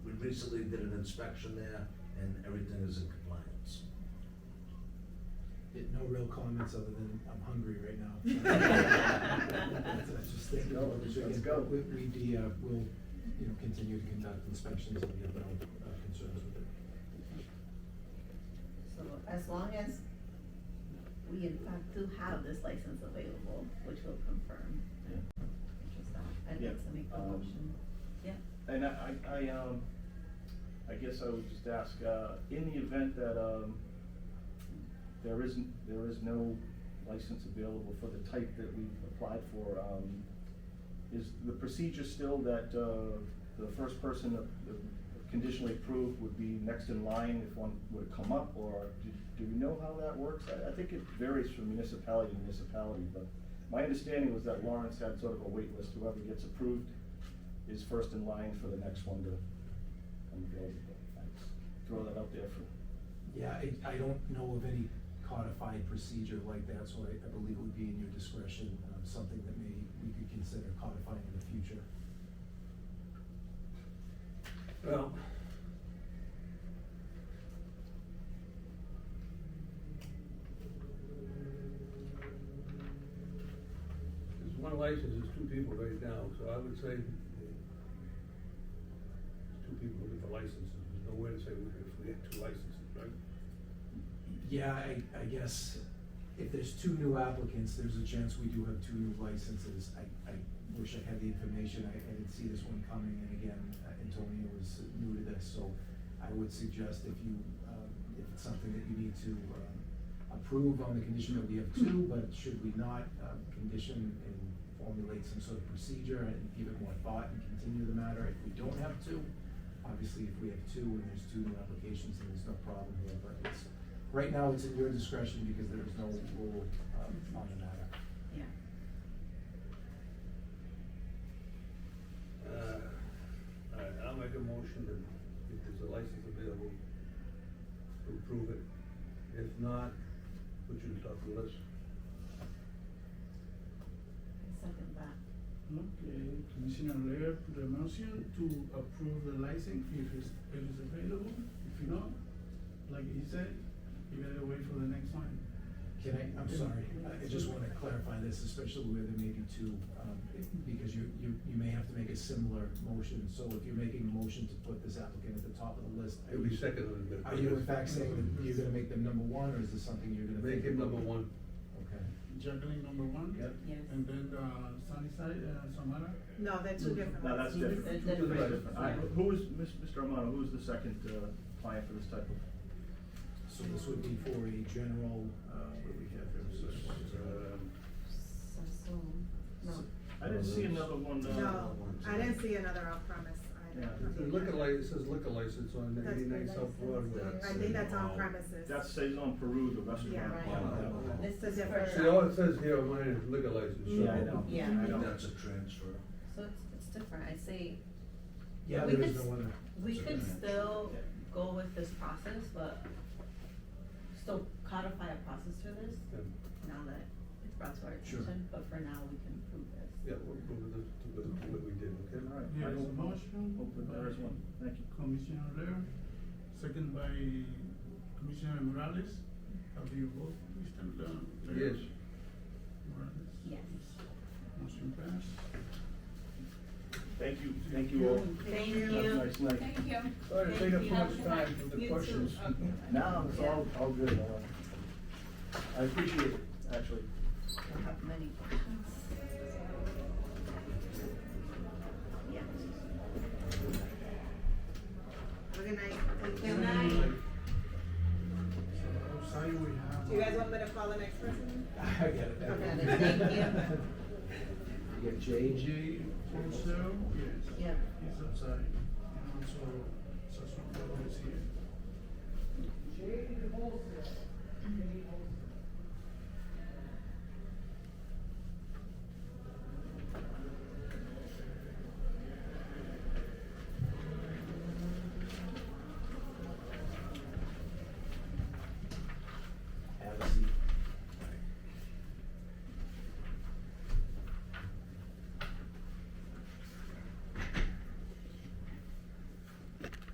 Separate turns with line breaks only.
recently did an inspection there, and everything is in compliance.
Yeah, No real comments other than I'm hungry right now. That's just thinking
Let's go,
about this
let's
again.
go.
We, we, uh, will, you know, continue to conduct inspections and we have no uh, concerns with it.
So as long as we in fact do have this license available, which will confirm.
Yeah.
Just that, I'd
Yeah,
like to make a
um,
motion, yeah.
And I, I, I, um, I guess I would just ask, uh, in the event that, um, there isn't, there is no license available for the type that we've applied for, um, is the procedure still that, uh, the first person that that conditionally approved would be next in line if one were to come up, or do, do we know how that works? I, I think it varies from municipality to municipality, but my understanding was that Lawrence had sort of a wait list. whoever gets approved is first in line for the next one to come build. I Throw that out there for,
Yeah, I, I don't know of any codified procedure like that, so I, I believe it would be in your discretion, um, something that maybe we could consider codifying in the future.
Well.
There's one license, there's two people right now, so I would say eh, two people with the licenses, there's no way to say we- if we had two licenses, right?
Yeah, I, I guess if there's two new applicants, there's a chance we do have two new licenses. I, I wish I had the information, I, I didn't see this one coming, and again, uh, Antonio was new to this, so I would suggest if you, um, if it's something that you need to, um, approve on the condition that we have two, but should we not, um, condition and formulate some sort of procedure and give it more thought and continue the matter if we don't have two? Obviously, if we have two and there's two new applications, then there's no problem here, but it's, right now it's at your discretion because there is no rule, um, on the matter.
Yeah.
Uh, all right, I'll make a motion that if there's a license available, to approve it. If not, put you top of the list.
I Second that,
Okay, Commissioner Lear put a motion to approve the license if it's, if it's available, if not, like he said, you gotta wait for the next one.
Can I, I'm sorry, I- I just wanna clarify this, especially where there may be two, um, because you, you, you may have to make a similar motion. So if you're making a motion to put this applicant at the top of the list. are
It'll be
you-
second on the.
Are you in fact saying that you're gonna make them number one, or is this something you're gonna?
Make
think
him
about?
number one.
Okay.
Juggling number one.
Yep.
yes.
And then, uh, Sunnyside, uh, Samara.
No, they're two different
no, that's
ones.
different.
That's
That's
different.
different. All right, Who was, Mr. Armano, who was the second, uh, client for this type of?
So this would be for a general, uh, what do we have here? So it's, uh,
Um,
Sassoon, no,
I didn't see another one, uh.
No, I didn't see another on-premise. I
Yeah.
don't
The
think
liquor
that-
license, it says liquor license on
That's
eighty-nine
the
South Broadway.
license.
I think that's on-premises.
That says on Peru, the restaurant.
Yeah, right.
Wow.
this
It's a
is
different-
for.
See, all it says here on mine is liquor license, so.
Yeah, I know.
Yeah.
I know.
That's a transfer.
So it's, it's different, I say.
Yeah,
we
there
could
is
s-
no other.
We
It's
could
okay.
still go with this process, but still codify a process for this,
Yeah.
now that it's brought to our
Sure.
attention, but for now, we can prove this.
Yeah, we'll go with the, to the, to what we did, okay?
All right. I
There's a
will-
motion.
Open, there is one, thank you.
Commissioner Lear, second by Commissioner Morales. Have you vote, Mr. Lear?
Yes,
Morales?
Yes.
Motion passed.
Thank you, thank you all.
Thank you.
Have a nice night.
Thank you.
sorry to take up too much time
You
with the
too.
questions.
Okay.
No, it's all, all good, uh, I appreciate it, actually.
We have many questions. Yeah.
Have a good night. Thank you.
Good night.
Outside we have.
Do you guys want me to call the next person?
I get it.
Okay, thank you.
You got J?
J Fonso, yes.
Yeah.
He's outside.